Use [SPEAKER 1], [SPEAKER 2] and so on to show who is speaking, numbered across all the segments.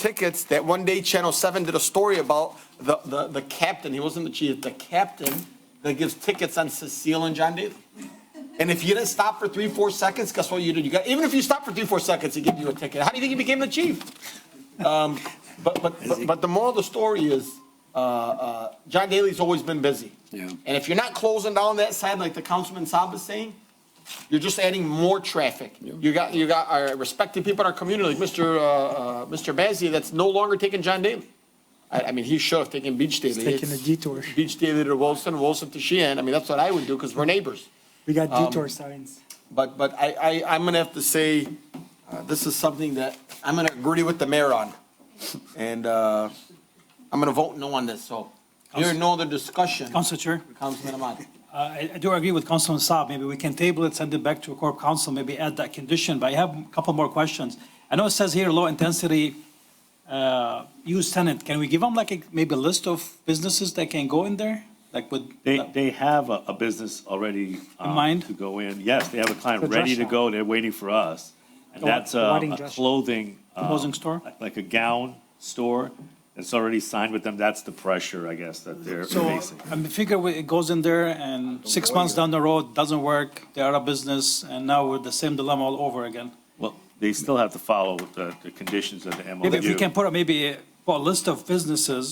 [SPEAKER 1] tickets that one day Channel 7 did a story about the, the, the captain, he wasn't the chief, the captain that gives tickets on Cecile and John Daly. And if you didn't stop for three, four seconds, guess what you did? You got, even if you stopped for three, four seconds, he gave you a ticket. How do you think he became the chief? Um, But, but, but- but the moral of the story is, uh, uh, John Daly's always been busy.
[SPEAKER 2] Yeah.
[SPEAKER 1] And if you're not closing down that side, like the Councilman Saab is saying, you're just adding more traffic. You got, you got our respected people in our community, like Mr. uh, uh, Mr. Bazey, that's no longer taking John Daly. I, I mean, he should have taken Beach Daily.
[SPEAKER 3] taking
[SPEAKER 1] It's
[SPEAKER 3] a detour.
[SPEAKER 1] Beach Daily to Wilson, Wilson to Sheehan. I mean, that's what I would do because we're neighbors.
[SPEAKER 3] We got detour signs.
[SPEAKER 1] But, but I, I, I'm gonna have to say, uh, this is something that I'm gonna agree with the mayor on. And, uh, I'm gonna vote no on this, so. Here, no other discussion.
[SPEAKER 4] Council Chair,
[SPEAKER 1] Councilman Ahmad.
[SPEAKER 4] uh, I I do agree with Councilman Saab. Maybe we can table it, send it back to Corp Council, maybe add that condition. But I have a couple more questions. I know it says here low-intensity use tenant. Can we give them like a- maybe a list of businesses that can go in there? Like with,
[SPEAKER 5] They, they have a, a business already. um,
[SPEAKER 4] mind?
[SPEAKER 5] To go in. Yes, they have a client
[SPEAKER 3] The dress
[SPEAKER 5] ready to
[SPEAKER 3] shop.
[SPEAKER 5] go. They're waiting for us. And
[SPEAKER 3] The wa-
[SPEAKER 5] that's
[SPEAKER 3] the
[SPEAKER 5] uh,
[SPEAKER 3] wedding
[SPEAKER 5] a
[SPEAKER 3] dress shop.
[SPEAKER 5] clothing. um,
[SPEAKER 4] Clothing store?
[SPEAKER 5] like- Like a gown store. It's already signed with them. That's the pressure, I guess, that they're
[SPEAKER 4] so
[SPEAKER 5] facing.
[SPEAKER 4] I mean, figure we- it goes in there and six months down the road, doesn't work, they are a business, and now we're the same dilemma all over again.
[SPEAKER 5] Well, they still have to follow the, the conditions of the MOU.
[SPEAKER 4] Maybe if we can put up maybe, uh, well, a list of businesses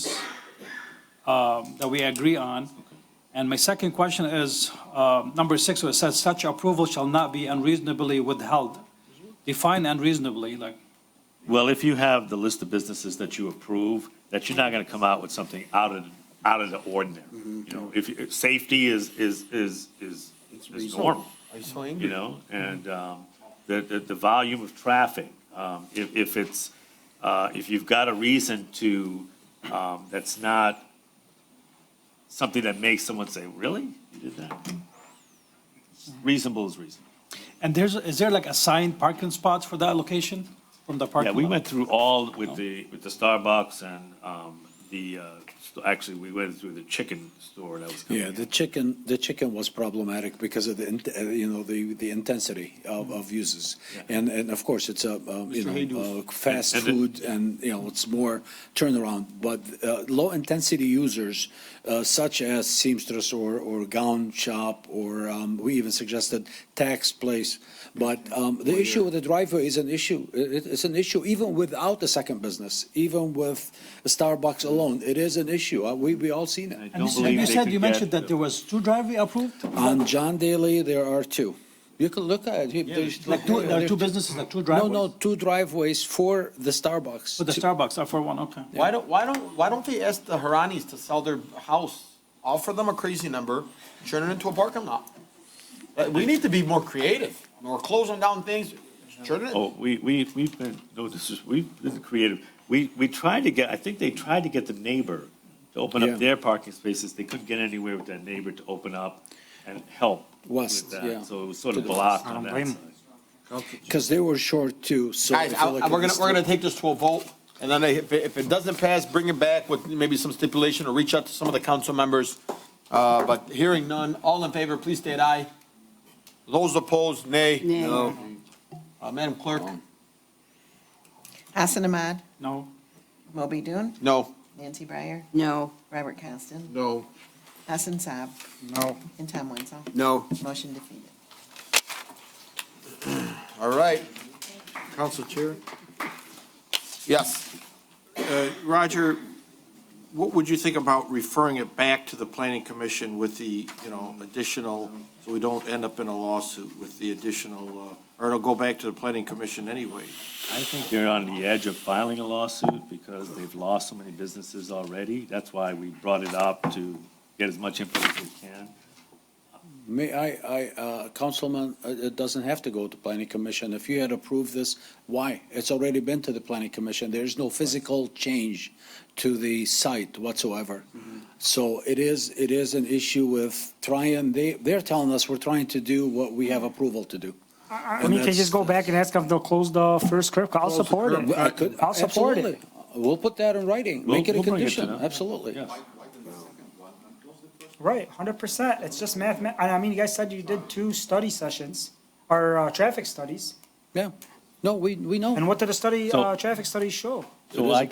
[SPEAKER 4] um, that we agree on. And my second question is, um, number six, where it says such approval shall not be unreasonably withheld. Define unreasonably, like,
[SPEAKER 5] Well, if you have the list of businesses that you approve, that you're not gonna come out with something out of, out of the ordinary. You know, if, if safety is, is, is, is, is normal.
[SPEAKER 1] Are you so
[SPEAKER 5] you
[SPEAKER 1] angry?
[SPEAKER 5] know, and um, the, the, the volume of traffic. um, If, if it's, uh, if you've got a reason to, um, that's not something that makes someone say, really? You did that? Reasonable is reasonable.
[SPEAKER 4] and there's, is there like assigned parking spots for that location from the parking
[SPEAKER 5] Yeah,
[SPEAKER 4] lot? Oh.
[SPEAKER 5] we went through all with the, with the Starbucks and um, the, uh, st- actually, we went through the chicken store that was coming
[SPEAKER 2] Yeah,
[SPEAKER 5] in.
[SPEAKER 2] the chicken, the chicken was problematic because of the, int- uh, you know, the, the intensity of, of uses. And, and of course, it's a, um, you know, uh, fast
[SPEAKER 5] And- and
[SPEAKER 2] food and, you know, it's more turnaround. But uh, low-intensity users uh, such as seamstress or, or gown shop, or um, we even suggested tax place. But um, the issue with the driveway is an issue. It- it- It's an issue even without a second business, even with Starbucks alone. It is an issue. Uh, We, we all seen it.
[SPEAKER 5] I
[SPEAKER 4] And
[SPEAKER 5] don't
[SPEAKER 4] you said-
[SPEAKER 5] believe
[SPEAKER 4] you
[SPEAKER 5] they
[SPEAKER 4] said,
[SPEAKER 5] could
[SPEAKER 4] you mentioned
[SPEAKER 5] get-
[SPEAKER 4] that there was two driveway approved?
[SPEAKER 2] On John Daly, there are two. You can look at it. He- there's-
[SPEAKER 4] Like two, there are two businesses, like two
[SPEAKER 2] No,
[SPEAKER 4] driveways?
[SPEAKER 2] no, two driveways for the Starbucks.
[SPEAKER 4] For the Starbucks, or for one, okay.
[SPEAKER 1] Why don't, why don't, why don't they ask the Haranis to sell their house? Offer them a crazy number, turn it into a parking lot. Uh, We need to be more creative. We're closing down things, turn it.
[SPEAKER 5] Oh, we, we, we've been, no, this is, we've been creative. We, we tried to get, I think they tried to get the neighbor to open
[SPEAKER 2] Yeah.
[SPEAKER 5] up their parking spaces. They couldn't get anywhere with that neighbor to open up and help
[SPEAKER 2] West,
[SPEAKER 5] with that.
[SPEAKER 2] yeah.
[SPEAKER 5] So it was sort of blocked on that side.
[SPEAKER 2] Because they were short too, so.
[SPEAKER 1] Guys,
[SPEAKER 2] if you
[SPEAKER 1] I-
[SPEAKER 2] look
[SPEAKER 1] I-
[SPEAKER 2] at
[SPEAKER 1] we're gonna,
[SPEAKER 2] this-
[SPEAKER 1] we're gonna take this to a vote, and then if, it- if it doesn't pass, bring it back with maybe some stipulation or reach out to some of the council members. Uh, but hearing none, all in favor, please state aye. Those opposed, nay. No. Uh, Madam Clerk,
[SPEAKER 6] Hassan Ahmad,
[SPEAKER 4] No,
[SPEAKER 6] Moby Dun,
[SPEAKER 1] no.
[SPEAKER 6] Nancy Breyer,
[SPEAKER 7] No.
[SPEAKER 6] Robert Constant,
[SPEAKER 1] No.
[SPEAKER 6] Hassan Saab,
[SPEAKER 3] No.
[SPEAKER 6] and Tom Wenzel.
[SPEAKER 1] No.
[SPEAKER 6] Motion defeated.
[SPEAKER 1] All right,
[SPEAKER 8] Council Chair,
[SPEAKER 1] yes.
[SPEAKER 8] uh, Roger, what would you think about referring it back to the planning commission with the, you know, additional, so we don't end up in a lawsuit with the additional, uh, or it'll go back to the planning commission anyway?
[SPEAKER 5] I think they're on the edge of filing a lawsuit because they've lost so many businesses already. That's why we brought it up to get as much input as we can.
[SPEAKER 2] May I, I, uh, Councilman, uh, it doesn't have to go to planning commission. If you had approved this, why? It's already been to the planning commission. There is no physical change to the site whatsoever.
[SPEAKER 4] Mm-hmm.
[SPEAKER 2] So it is, it is an issue with trying, they, they're telling us we're trying to do what we have approval to do.
[SPEAKER 3] I I
[SPEAKER 2] And
[SPEAKER 3] mean, can you
[SPEAKER 2] that's-
[SPEAKER 3] just go back and ask if they'll close the first curb? I'll support it.
[SPEAKER 2] I could-
[SPEAKER 3] I'll support it.
[SPEAKER 2] absolutely. We'll put that in writing,
[SPEAKER 5] We'll-
[SPEAKER 2] make it a
[SPEAKER 5] we'll bring it to
[SPEAKER 2] condition,
[SPEAKER 5] them.
[SPEAKER 2] absolutely.
[SPEAKER 5] Yes.
[SPEAKER 3] Right, hundred percent. It's just math, ma- I mean, you guys said you did two study sessions, or, uh, traffic studies.
[SPEAKER 2] Yeah, no, we, we know.
[SPEAKER 3] And what did the study,
[SPEAKER 5] So-
[SPEAKER 3] uh, traffic studies show?
[SPEAKER 9] It
[SPEAKER 5] So
[SPEAKER 9] is a
[SPEAKER 5] I